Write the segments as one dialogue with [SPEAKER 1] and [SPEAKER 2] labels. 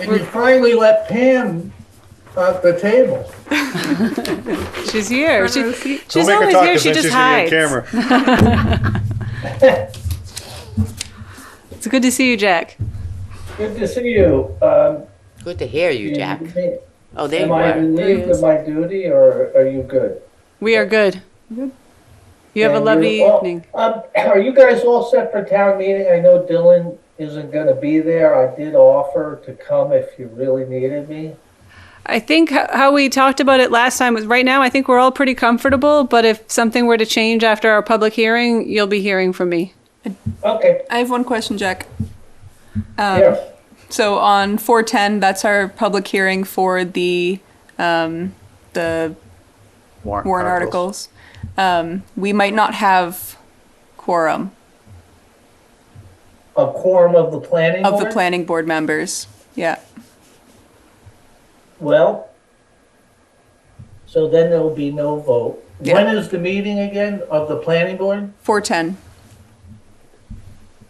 [SPEAKER 1] And you finally let Pam at the table.
[SPEAKER 2] She's here. She,
[SPEAKER 3] Don't
[SPEAKER 2] she's
[SPEAKER 3] make her
[SPEAKER 2] always
[SPEAKER 3] talk
[SPEAKER 2] here.
[SPEAKER 3] 'cause
[SPEAKER 2] She
[SPEAKER 3] then
[SPEAKER 2] just
[SPEAKER 3] she's gonna
[SPEAKER 2] hides.
[SPEAKER 3] be on camera.
[SPEAKER 2] It's good to see you, Jack.
[SPEAKER 1] Good to see you. Um,
[SPEAKER 4] Good to hear you, Jack. Oh,
[SPEAKER 1] Mm-hmm.
[SPEAKER 4] there
[SPEAKER 1] Am
[SPEAKER 4] you
[SPEAKER 1] I
[SPEAKER 4] are.
[SPEAKER 1] relieved of my duty or are you good?
[SPEAKER 2] We are good. You have a
[SPEAKER 1] And
[SPEAKER 2] lovely
[SPEAKER 1] you're all-
[SPEAKER 2] evening.
[SPEAKER 1] Um, are you guys all set for town meeting? I know Dylan isn't gonna be there. I did offer to come if you really needed me.
[SPEAKER 2] I think h- how we talked about it last time was right now, I think we're all pretty comfortable, but if something were to change after our public hearing, you'll be hearing from me.
[SPEAKER 1] Okay,
[SPEAKER 5] I have one question, Jack. Um,
[SPEAKER 1] yeah.
[SPEAKER 5] So on 410, that's our public hearing for the um, the warrant articles. Um, we might not have quorum
[SPEAKER 1] A quorum of the planning
[SPEAKER 5] of the
[SPEAKER 1] board?
[SPEAKER 5] planning board members. Yeah.
[SPEAKER 1] Well, so then there'll be no vote.
[SPEAKER 5] Yeah.
[SPEAKER 1] When is the meeting again of the planning board?
[SPEAKER 5] 410.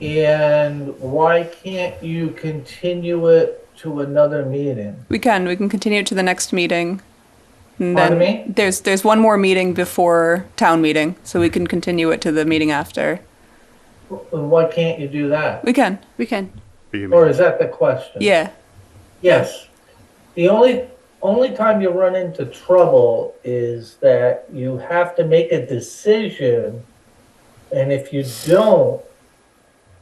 [SPEAKER 1] And why can't you continue it to another meeting?
[SPEAKER 5] We can. We can continue it to the next meeting. And
[SPEAKER 1] Pardon me?
[SPEAKER 5] then there's there's one more meeting before town meeting, so we can continue it to the meeting after.
[SPEAKER 1] And Why can't you do that?
[SPEAKER 5] We can.
[SPEAKER 2] We can.
[SPEAKER 1] Or is that the question?
[SPEAKER 5] Yeah.
[SPEAKER 1] Yes. The only, only time you run into trouble is that you have to make a decision. And if you don't,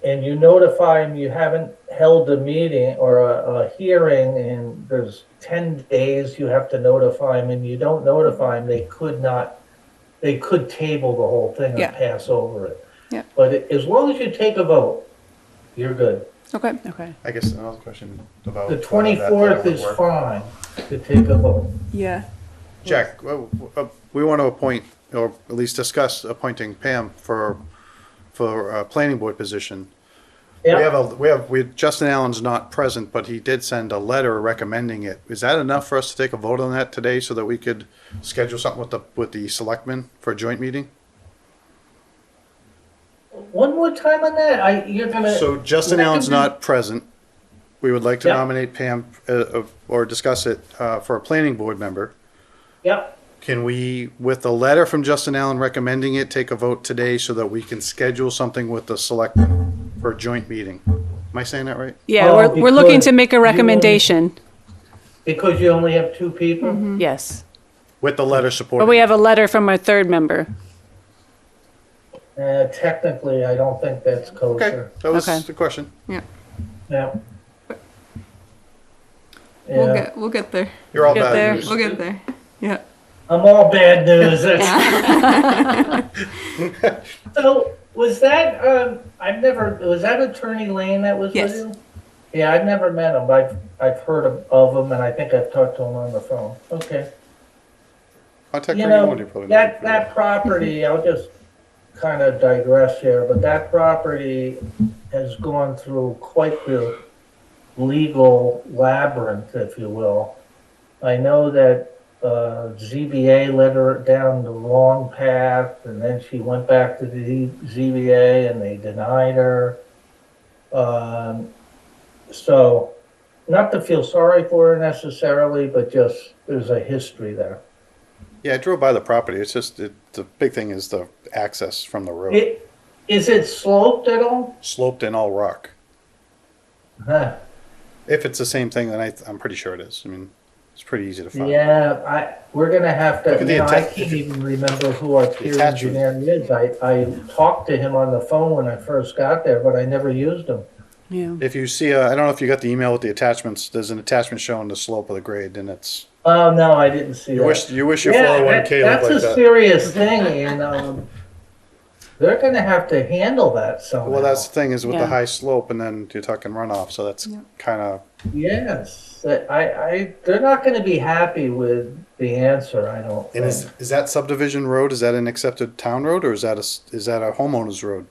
[SPEAKER 1] and you notify them you haven't held a meeting or a, a hearing and there's ten days you have to notify them and you don't notify them, they could not, they could table the whole thing
[SPEAKER 5] Yeah.
[SPEAKER 1] and pass over it.
[SPEAKER 5] Yeah.
[SPEAKER 1] But as long as you take a vote, you're good.
[SPEAKER 5] Okay.
[SPEAKER 2] Okay.
[SPEAKER 3] I guess another question about.
[SPEAKER 1] The
[SPEAKER 3] uh, that- that
[SPEAKER 1] twenty-fourth
[SPEAKER 3] would
[SPEAKER 1] is
[SPEAKER 3] work.
[SPEAKER 1] fine to take a vote.
[SPEAKER 5] Yeah.
[SPEAKER 3] Jack, well, uh, we want to appoint, or at least discuss appointing Pam for, for a planning board position. We have
[SPEAKER 1] Yeah,
[SPEAKER 3] a, we have, we, Justin Allen's not present, but he did send a letter recommending it. Is that enough for us to take a vote on that today so that we could schedule something with the, with the selectmen for a joint meeting?
[SPEAKER 1] one more time on that, I, you're gonna.
[SPEAKER 3] So Justin Allen's not present. We would like to
[SPEAKER 1] Yeah.
[SPEAKER 3] nominate Pam, uh, uh, or discuss it, uh, for a planning board member.
[SPEAKER 1] Yep,
[SPEAKER 3] Can we, with the letter from Justin Allen recommending it, take a vote today so that we can schedule something with the selectmen for a joint meeting? Am I saying that right?
[SPEAKER 2] Yeah,
[SPEAKER 1] Oh,
[SPEAKER 2] we're, we're looking
[SPEAKER 1] because
[SPEAKER 2] to make a
[SPEAKER 1] you-
[SPEAKER 2] recommendation.
[SPEAKER 1] because you only have two
[SPEAKER 5] Mm-hmm.
[SPEAKER 1] people?
[SPEAKER 2] Yes.
[SPEAKER 3] With the letter supporting.
[SPEAKER 2] But we have a letter from our third member.
[SPEAKER 1] Uh, technically, I don't think that's
[SPEAKER 3] Okay,
[SPEAKER 1] kosher.
[SPEAKER 3] that was
[SPEAKER 2] Okay.
[SPEAKER 3] the question.
[SPEAKER 1] Yeah.
[SPEAKER 5] We'll
[SPEAKER 1] Yeah,
[SPEAKER 5] get we'll get there.
[SPEAKER 3] You're all
[SPEAKER 2] Get there.
[SPEAKER 3] bad news.
[SPEAKER 5] We'll get there. Yeah.
[SPEAKER 1] I'm all bad news. That's- So, was that, um, I've never, was that Attorney Lane that was with
[SPEAKER 5] Yes.
[SPEAKER 1] you? Yeah, I've never met him, but I've, I've heard of- of him, and I think I've talked to him on the phone. Okay.
[SPEAKER 3] Contact
[SPEAKER 1] You
[SPEAKER 3] Randy
[SPEAKER 1] know,
[SPEAKER 3] Moore, you probably know.
[SPEAKER 1] that, that property, I'll just kind of digress here, but that property has gone through quite the legal labyrinth, if you will. I know that, uh, ZBA led her down the wrong path, and then she went back to the ZBA and they denied her. Um, so, not to feel sorry for her necessarily, but just, there's a history there.
[SPEAKER 3] Yeah, I drove by the property. It's just, it, the big thing is the access from the road,
[SPEAKER 1] It, is it sloped at all?
[SPEAKER 3] sloped and all rock.
[SPEAKER 1] Huh.
[SPEAKER 3] If it's the same thing, then I, I'm pretty sure it is. I mean, it's pretty easy to find.
[SPEAKER 1] Yeah, I, we're gonna have to,
[SPEAKER 3] Look at the
[SPEAKER 1] you know, I
[SPEAKER 3] atta-
[SPEAKER 1] can't even remember who our peer
[SPEAKER 3] attachment.
[SPEAKER 1] engineer is. I, I talked to him on the phone when I first got there, but I never used him.
[SPEAKER 2] Yeah.
[SPEAKER 3] If you see, uh, I don't know if you got the email with the attachments, there's an attachment showing the slope of the grade and it's,
[SPEAKER 1] Oh, no, I didn't see
[SPEAKER 3] you wish,
[SPEAKER 1] that.
[SPEAKER 3] you wish your
[SPEAKER 1] Yeah, that-
[SPEAKER 3] 401K looked
[SPEAKER 1] that's
[SPEAKER 3] like
[SPEAKER 1] a
[SPEAKER 3] that.
[SPEAKER 1] serious thing and, um, they're gonna have to handle that somehow.
[SPEAKER 3] Well, that's the thing is with
[SPEAKER 2] Yeah.
[SPEAKER 3] the high slope and then you're talking runoff, so that's kind of,
[SPEAKER 1] Yes, that- I, I, they're not gonna be happy with the answer, I don't
[SPEAKER 3] and is,
[SPEAKER 1] think.
[SPEAKER 3] is that subdivision road, is that an accepted town road or is that a, s- is that a homeowners road?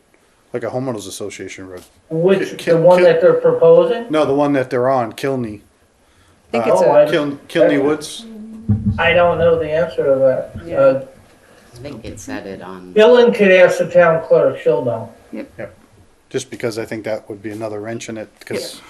[SPEAKER 3] Like a homeowners association road?
[SPEAKER 1] Which, the
[SPEAKER 3] Can-
[SPEAKER 1] one
[SPEAKER 3] can-
[SPEAKER 1] that they're proposing?
[SPEAKER 3] No, the one that they're on, Kilney.
[SPEAKER 5] I think
[SPEAKER 3] Uh,
[SPEAKER 5] it's
[SPEAKER 1] oh,
[SPEAKER 5] a
[SPEAKER 1] I-
[SPEAKER 3] Kiln, Kilney Woods?
[SPEAKER 1] I don't know the answer to that. Uh,
[SPEAKER 4] I think it said it on.
[SPEAKER 1] Dylan could ask the town clerk, she'll know.
[SPEAKER 5] Yep.
[SPEAKER 3] Yep. Just because I think that would be another wrench in it, because